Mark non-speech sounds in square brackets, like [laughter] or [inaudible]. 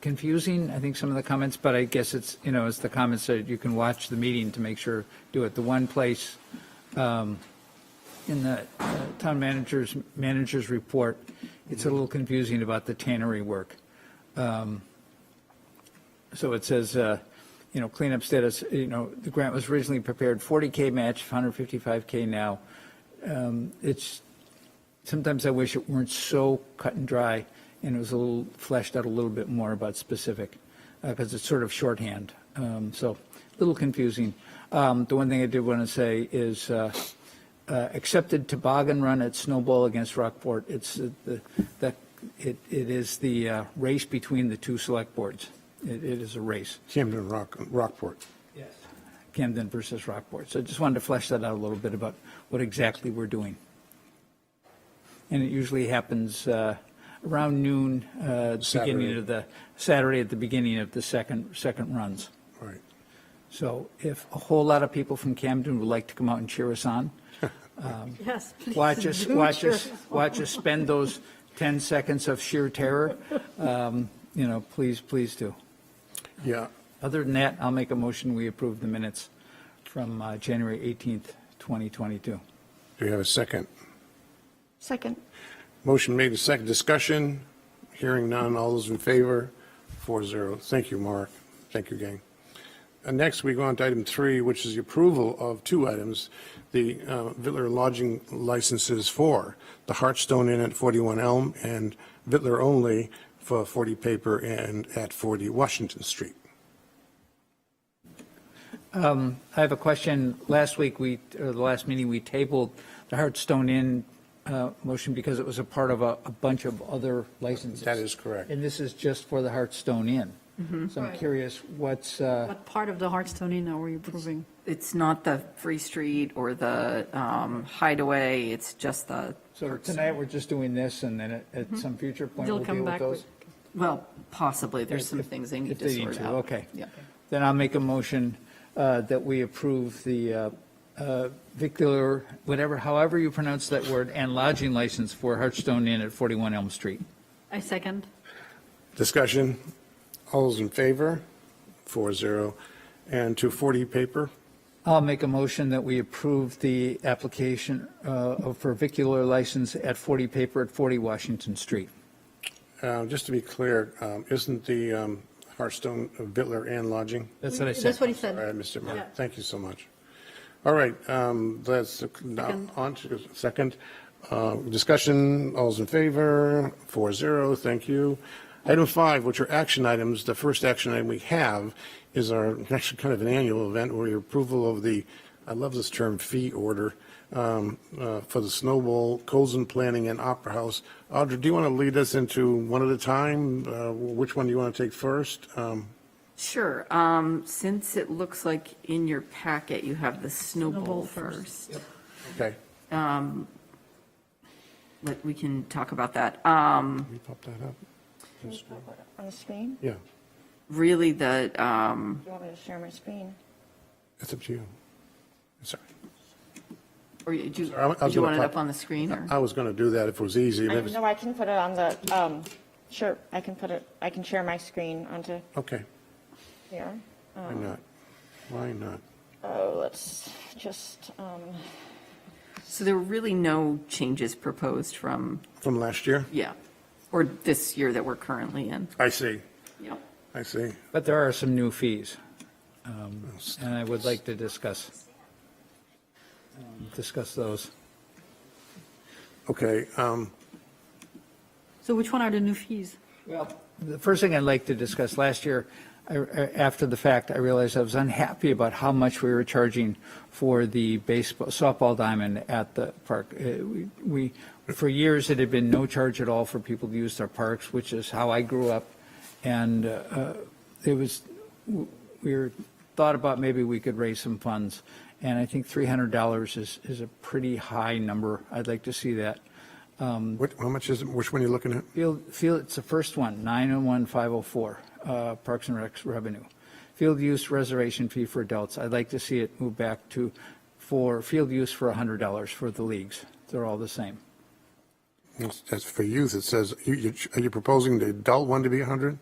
confusing, I think, some of the comments, but I guess it's, you know, as the comments said, you can watch the meeting to make sure, do it. The one place um, in the uh, town manager's, manager's report, it's a little confusing about the tannery work. Um, So it says, uh, you know, cleanup status, you know, the grant was originally prepared 40K match, 155K now. Um, It's, sometimes I wish it weren't so cut and dry and it was a little fleshed out a little bit more about specific, because it's sort of shorthand. Um, So a little confusing. Um, The one thing I did want to say is, uh, uh, accepted toboggan run at Snowball against Rockport. It's uh, the, that, it, it is the uh, race between the two select boards. It, it is a race, Camden Rock, Rockport. Camden versus Rockport. So I just wanted to flesh that out a little bit about what exactly we're doing. And it usually happens uh, around noon, uh, beginning Saturday. of the, Saturday at the beginning of the second, second runs. Right. So if a whole lot of people from Camden would like to come out and cheer us on, Yes. [laughs] please Watch us, do watch your- us, watch us spend those 10 seconds of sheer terror. Um, You know, please, please do. Yeah, Other than that, I'll make a motion, we approve the minutes from uh, January 18th, 2022. do we have a second? Second. Motion made, a second discussion, hearing none, all those in favor, four zero. Thank you, Mark. Thank you, gang. And next, we go on to item three, which is the approval of two items, the uh, Vittler lodging licenses for the Hartstone Inn at 41 Elm and Vittler only for 40 Paper and at 40 Washington Street. I have a question. Last week, we, or the last meeting, we tabled the Hearthstone Inn uh, motion because it was a part of a a bunch of other licenses. That is correct. And this is just for the Hearthstone Inn. So I'm Mm-hmm. Right. curious, what's, uh, What part of the Hartstone Inn are we approving? It's not the Free Street or the um, Hideaway, it's just the, so tonight, we're just doing this, and then at- at some future point, Mm-hmm. They'll we'll deal come with back those? with, well, possibly, there's some If- things they if need to sort out. Okay. Yeah. Then I'll make a motion uh, that we approve the uh, uh, Vicular, whatever, however you pronounce that word, and lodging license for Hartstone Inn at 41 Elm Street. I second. Discussion, all those in favor, four zero. And to 40 Paper, I'll make a motion that we approve the application uh, for Vicular license at 40 Paper at 40 Washington Street. Uh, Just to be clear, um, isn't the um, Hearthstone Bitler and Lodging? That's what I said. That's what he All right, said. Mr. Yeah. Mark, thank you so much. All right, um, that's, now Second. on to second. Uh, Discussion, all's in favor, four zero, thank you. Item five, which are action items, the first action item we have is our, [laughs] actually kind of an annual event, where your approval of the, I love this term, fee order um, uh, for the Snowball, Colson Planning and Opera House. Audra, do you want to lead us into one at a time? Uh, Which one do you want to take first? Um, Sure, um, since it looks like in your packet, you have the Snowball snowball first. first. Okay, But we can talk about that. Um, can you pop that up? On the screen? Yeah, Really, the, um, Do you want me to share my screen? it's up to you. Sorry. or you- do you I was do you gonna want it pop- up on the screen, or? I was going to do that if it was easy. and I, it was- no, I can put it on the, um, sure, I can put it, I can share my screen onto Okay, here. why not? Why not? Oh, let's just, um, So there were really no changes proposed from, From last year? yeah, or this year that we're currently in. I see, Yep. I see. But there are some new fees, um, and I would like to discuss, um, discuss those. Okay, um, So which one are the new fees? Well, the first thing I'd like to discuss, last year, I- I- after the fact, I realized I was unhappy about how much we were charging for the baseball, softball diamond at the park. Uh, we- We, for years, it had been no charge at all for people to use their parks, which is how I grew up. And uh, it was, we were, thought about maybe we could raise some funds. And I think $300 is, is a pretty high number. I'd like to see that. what, how much is, it? which one are you looking at? Field, field, it's the first one, 901504, uh, Parks and Recs revenue. Field use reservation fee for adults, I'd like to see it move back to, for field use for $100 for the leagues. They're all the same. That's- That's for youth, it says, you, you- are you proposing the adult one to be 100?